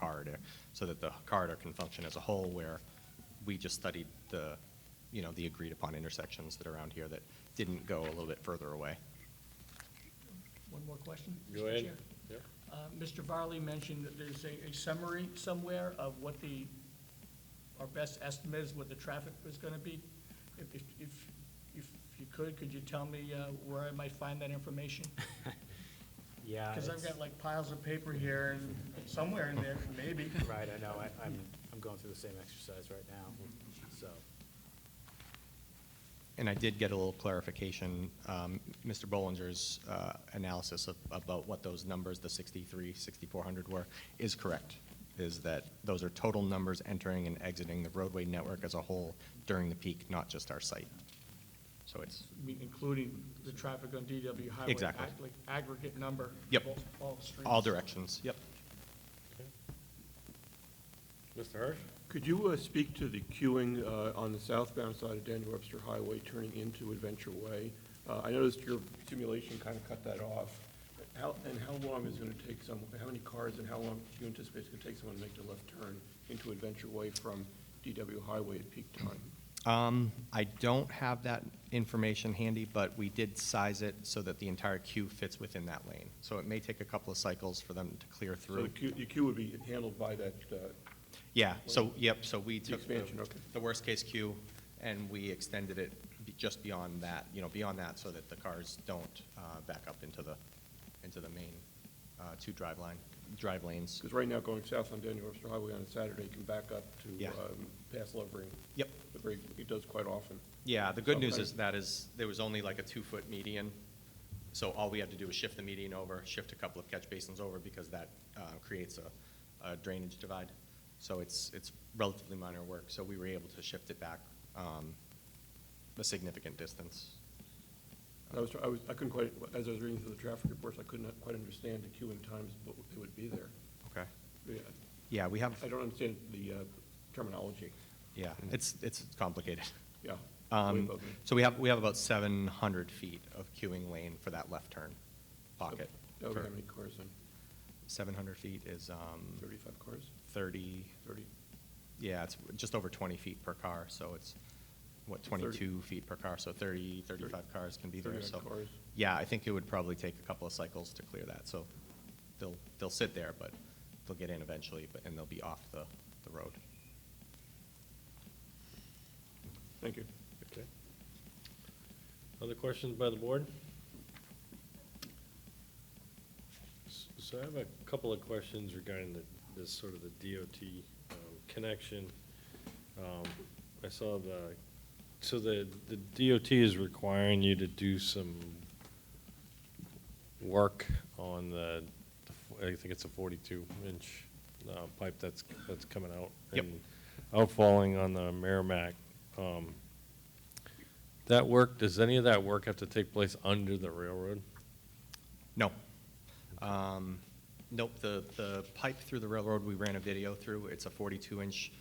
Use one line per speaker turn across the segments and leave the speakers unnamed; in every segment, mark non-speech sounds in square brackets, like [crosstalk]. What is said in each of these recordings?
uh, so that the corridor can function as a whole, where we just studied the, you know, the agreed-upon intersections that are around here that didn't go a little bit further away.
One more question?
Go
Mr.
ahead.
Chair?
Yep.
Uh, Mr. Varley mentioned that there's a a summary somewhere of what the, our best estimate is what the traffic was going to be. If, if- if, if you could, could you tell me uh, where I might find that information?
Yeah.
Because I've
it's-
got like piles of paper here and somewhere in there, maybe.
Right, I know, I, I'm, I'm going through the same exercise right now, so.
And I did get a little clarification, um, Mr. Bollinger's uh, analysis of- about what those numbers, the 63, 6,400 were, is correct, is that those are total numbers entering and exiting the roadway network as a whole during the peak, not just our site. So it's,
I mean, Including the traffic on DW Highway.
Exactly.
ag- Like aggregate number. of
Yep.
all- All streets.
all directions, yep.
Mr. Hirsch?
Could you uh, speak to the queuing uh, on the southbound side of Daniel Webster Highway turning into Adventure Way? Uh, I noticed your simulation kind of cut that off. How, and how long is it going to take someone, how many cars and how long do you anticipate it's going to take someone to make the left turn into Adventure Way from DW Highway at peak time?
Um, I don't have that information handy, but we did size it so that the entire queue fits within that lane. So it may take a couple of cycles for them to clear
So the
through.
queue, the queue would be handled by that, uh,
Yeah, so, yep, so we
The
took the-
expansion, okay.
the worst-case queue, and we extended it be- just beyond that, you know, beyond that, so that the cars don't uh, back up into the, into the main uh, two drive line, drive lanes.
because right now going south on Daniel Webster Highway on a Saturday can back up to
Yeah.
um, past Lovering.
Yep.
The break- It does quite often.
Yeah, the good news is
Okay.
that is, there was only like a two-foot median, so all we had to do was shift the median over, shift a couple of catch basins over, because that uh, creates a a drainage divide. So it's, it's relatively minor work, so we were able to shift it back um, a significant distance.
I was, I was, I couldn't quite, as I was reading through the traffic reports, I couldn't quite understand the queuing times, but they would be there.
Okay.
Yeah,
Yeah, we have,
I don't understand the uh, terminology,
yeah, it's, it's complicated.
yeah. way
Um,
above me.
So we have, we have about 700 feet of queuing lane for that left turn pocket.
That would
For-
be Oh, how many cars then?
700 feet is um,
Thirty-five cars?
30,
Thirty?
yeah, it's just over 20 feet per car, so it's, what, 22 feet per car, so 30, 35 cars can be there,
30
so.
cars.
Yeah, I think it would probably take a couple of cycles to clear that, so they'll, they'll sit there, but they'll get in eventually, but, and they'll be off the, the road.
Thank you.
Okay. Other questions by the board? S- So I have a couple of questions regarding the, this sort of the DOT um, connection. Um, I saw the, so the, the DOT is requiring you to do some work on the, I think it's a forty-two inch uh, pipe that's, that's coming out.
Yep.
and Outfalling on the Merrimack. Um, That work, does any of that work have to take place under the railroad?
No. Um, Nope, the, the pipe through the railroad, we ran a video through. It's a 42-inch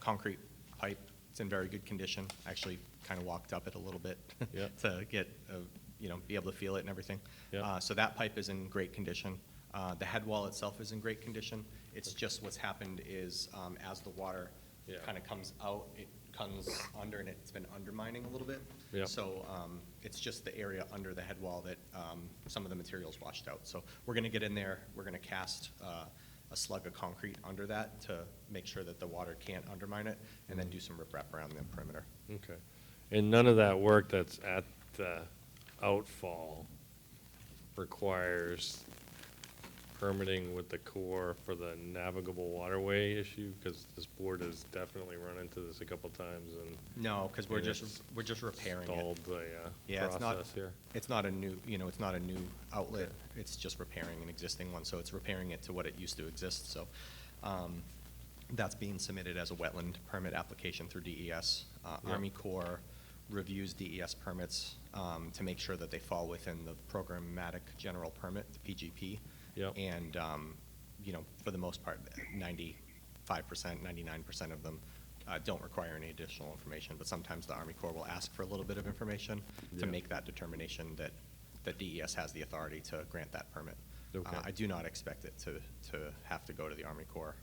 concrete pipe. It's in very good condition. Actually, kind of walked up it a little bit [laughs]
Yeah.
to get, uh, you know, be able to feel it and everything.
Yeah.
Uh, So that pipe is in great condition. Uh, The head wall itself is in great condition. It's just what's happened is um, as the water
Yeah.
kind of comes out, it comes under and it's been undermining a little bit.
Yeah.
So so um, it's just the area under the head wall that um, some of the materials washed out. So we're going to get in there, we're going to cast uh, a slug of concrete under that to make sure that the water can't undermine it, and
Mm-hmm.
then do some riprap around the perimeter.
Okay. And none of that work that's at the outfall requires permitting with the Corps for the navigable waterway issue? Because this board has definitely run into this a couple times and
No, because we're
And
just,
it's
we're just repairing it.
stalled the uh,
Yeah, it's not,
process here.
it's not a new, you know, it's not a new outlet, it's just repairing an existing one, so it's repairing it to what it used to exist, so, um, that's being submitted as a wetland permit application through DES. Uh,
Yeah.
Army Corps reviews DES permits, um, to make sure that they fall within the programmatic general permit, the PGP.
Yeah.
And, um, you know, for the most part, ninety-five percent, ninety-nine percent of them uh, don't require any additional information, but sometimes the Army Corps will ask for a little bit of information to
Yeah.
make that determination that, that DES has the authority to grant that permit. Uh,
Okay.
I do not expect it to, to have to go to the Army Corps